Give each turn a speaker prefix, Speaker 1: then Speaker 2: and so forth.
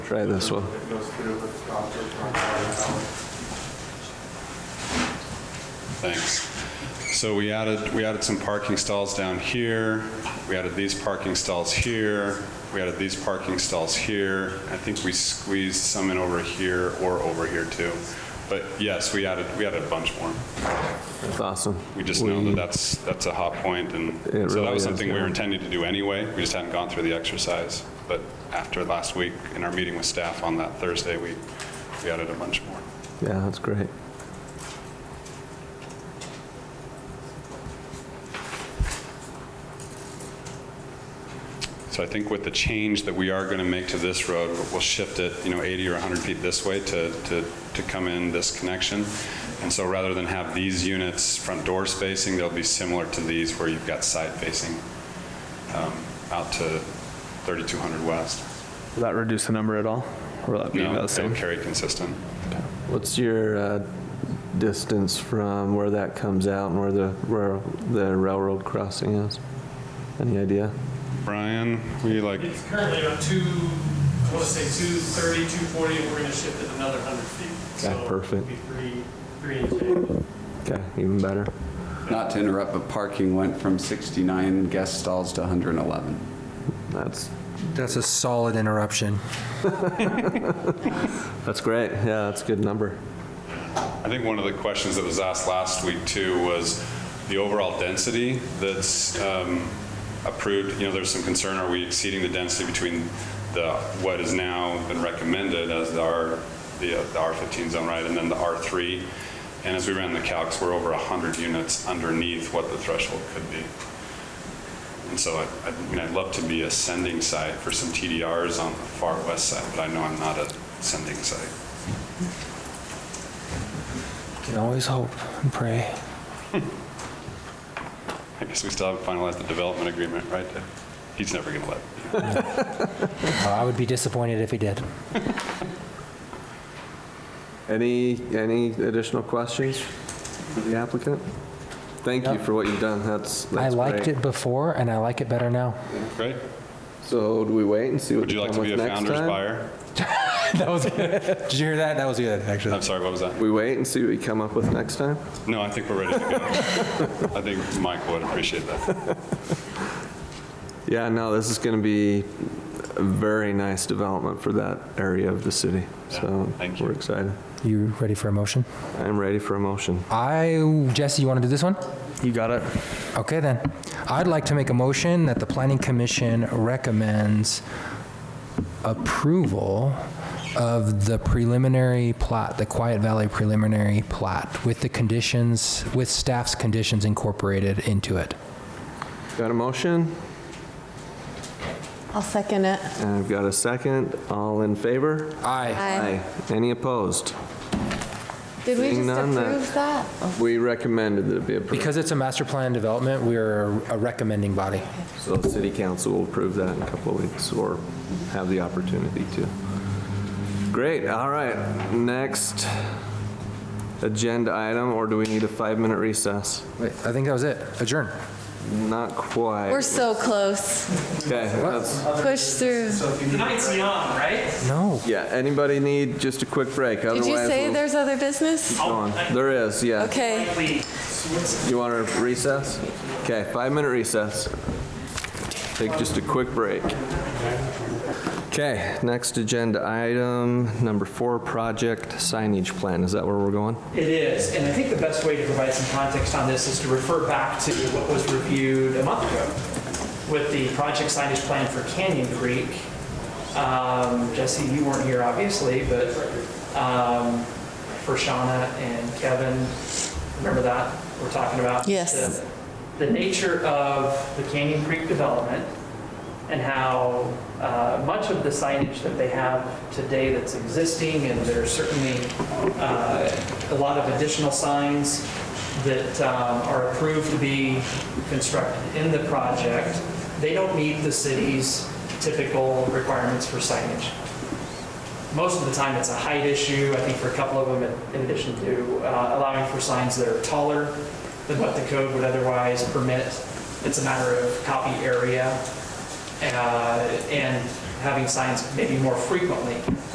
Speaker 1: Try this one.
Speaker 2: It goes through with the concrete front yard.
Speaker 3: Thanks. So we added, we added some parking stalls down here, we added these parking stalls here, we added these parking stalls here. I think we squeezed some in over here or over here too. But yes, we added, we added a bunch more.
Speaker 1: That's awesome.
Speaker 3: We just know that that's, that's a hot point and
Speaker 1: It
Speaker 3: so that
Speaker 1: really
Speaker 3: was
Speaker 1: is,
Speaker 3: something we
Speaker 1: yeah.
Speaker 3: were intending to do anyway. We just hadn't gone through the exercise. But after last week, in our meeting with staff on that Thursday, we, we added a bunch more.
Speaker 1: Yeah, that's great.
Speaker 3: So I think with the change that we are going to make to this road, we'll shift it, you know, 80 or 100 feet this way to, to, to come in this connection. And so rather than have these units front door spacing, they'll be similar to these where you've got side facing um, out to 3200 west.
Speaker 4: Will that reduce the number at all? Or will that be about
Speaker 3: No,
Speaker 4: the
Speaker 3: they'll
Speaker 4: same?
Speaker 3: carry consistent.
Speaker 1: What's your uh, distance from where that comes out and where the, where the railroad crossing is? Any idea?
Speaker 3: Brian, we like,
Speaker 5: It's currently about two, I want to say 230, 240, and we're going to shift it another 100 feet.
Speaker 1: Okay,
Speaker 5: So
Speaker 1: perfect.
Speaker 5: it'll be three, three and change.
Speaker 1: Okay, even better.
Speaker 6: Not to interrupt, but parking went from 69 guest stalls to 111.
Speaker 1: That's,
Speaker 7: That's a solid interruption.
Speaker 1: that's great. Yeah, that's a good number.
Speaker 3: I think one of the questions that was asked last week too was the overall density that's um, approved, you know, there's some concern, are we exceeding the density between the, what has now been recommended as the R, the uh, the R15 zone, right, and then the R3? And as we ran the calcs, we're over 100 units underneath what the threshold could be. And so I, I mean, I'd love to be a sending site for some TDRs on the far west side, but I know I'm not a sending site.
Speaker 7: Can always hope and pray.
Speaker 3: I guess we still haven't finalized the development agreement, right? He's never going to let.
Speaker 7: I would be disappointed if he did.
Speaker 1: Any, any additional questions for the applicant? Thank you for what you've done. That's,
Speaker 7: I
Speaker 1: that's
Speaker 7: liked
Speaker 1: great.
Speaker 7: it before, and I like it better now.
Speaker 3: Great.
Speaker 1: So do we wait and see what
Speaker 3: Would
Speaker 1: they
Speaker 3: you like
Speaker 1: come
Speaker 3: to be a
Speaker 1: with next
Speaker 3: founder's
Speaker 1: time?
Speaker 3: buyer?
Speaker 7: That was good. Did you hear that? That was good, actually.
Speaker 3: I'm sorry, what was that?
Speaker 1: We wait and see what you come up with next time?
Speaker 3: No, I think we're ready to go. I think Mike would appreciate that.
Speaker 1: Yeah, no, this is going to be a very nice development for that area of the city. So
Speaker 3: Yeah, thank you.
Speaker 1: we're excited.
Speaker 7: You ready for a motion?
Speaker 1: I'm ready for a motion.
Speaker 7: I, Jesse, you want to do this one?
Speaker 4: You got it.
Speaker 7: Okay, then. I'd like to make a motion that the planning commission recommends approval of the preliminary plat, the Quiet Valley preliminary plat, with the conditions, with staff's conditions incorporated into it.
Speaker 1: Got a motion?
Speaker 8: I'll second it.
Speaker 1: And I've got a second. All in favor?
Speaker 7: Aye.
Speaker 1: Any opposed?
Speaker 8: Did we
Speaker 1: Seeing
Speaker 8: just
Speaker 1: none, that-
Speaker 8: approve that?
Speaker 1: We recommended that it be approved.
Speaker 7: Because it's a master plan development, we're a recommending body.
Speaker 1: So the city council will approve that in a couple of weeks or have the opportunity to. Great, all right. Next agenda item, or do we need a five-minute recess?
Speaker 7: Wait, I think that was it. Adjourn.
Speaker 1: Not quite.
Speaker 8: We're so close.
Speaker 1: Okay, that's.
Speaker 8: Push through.
Speaker 5: Tonight's beyond, right?
Speaker 7: No.
Speaker 1: Yeah, anybody need just a quick break?
Speaker 8: Did you say there's other business?
Speaker 1: There is, yeah.
Speaker 8: Okay.
Speaker 5: Please.
Speaker 1: You want a recess? Okay, five-minute recess. Take just a quick break. Okay, next agenda item, number four, project signage plan. Is that where we're going?
Speaker 9: It is, and I think the best way to provide some context on this is to refer back to what was reviewed a month ago with the project signage plan for Canyon Creek. Um, Jesse, you weren't here obviously, but um, for Shauna and Kevin, remember that we're talking about?
Speaker 8: Yes.
Speaker 9: The- The nature of the Canyon Creek development and how uh, much of the signage that they have today that's existing, and there's certainly uh, a lot of additional signs that um, are approved to be constructed in the project, they don't meet the city's typical requirements for signage. Most of the time, it's a height issue, I think for a couple of them, in- in addition to uh, allowing for signs that are taller than what the code would otherwise permit. It's a matter of copy area uh, and having signs maybe more frequently.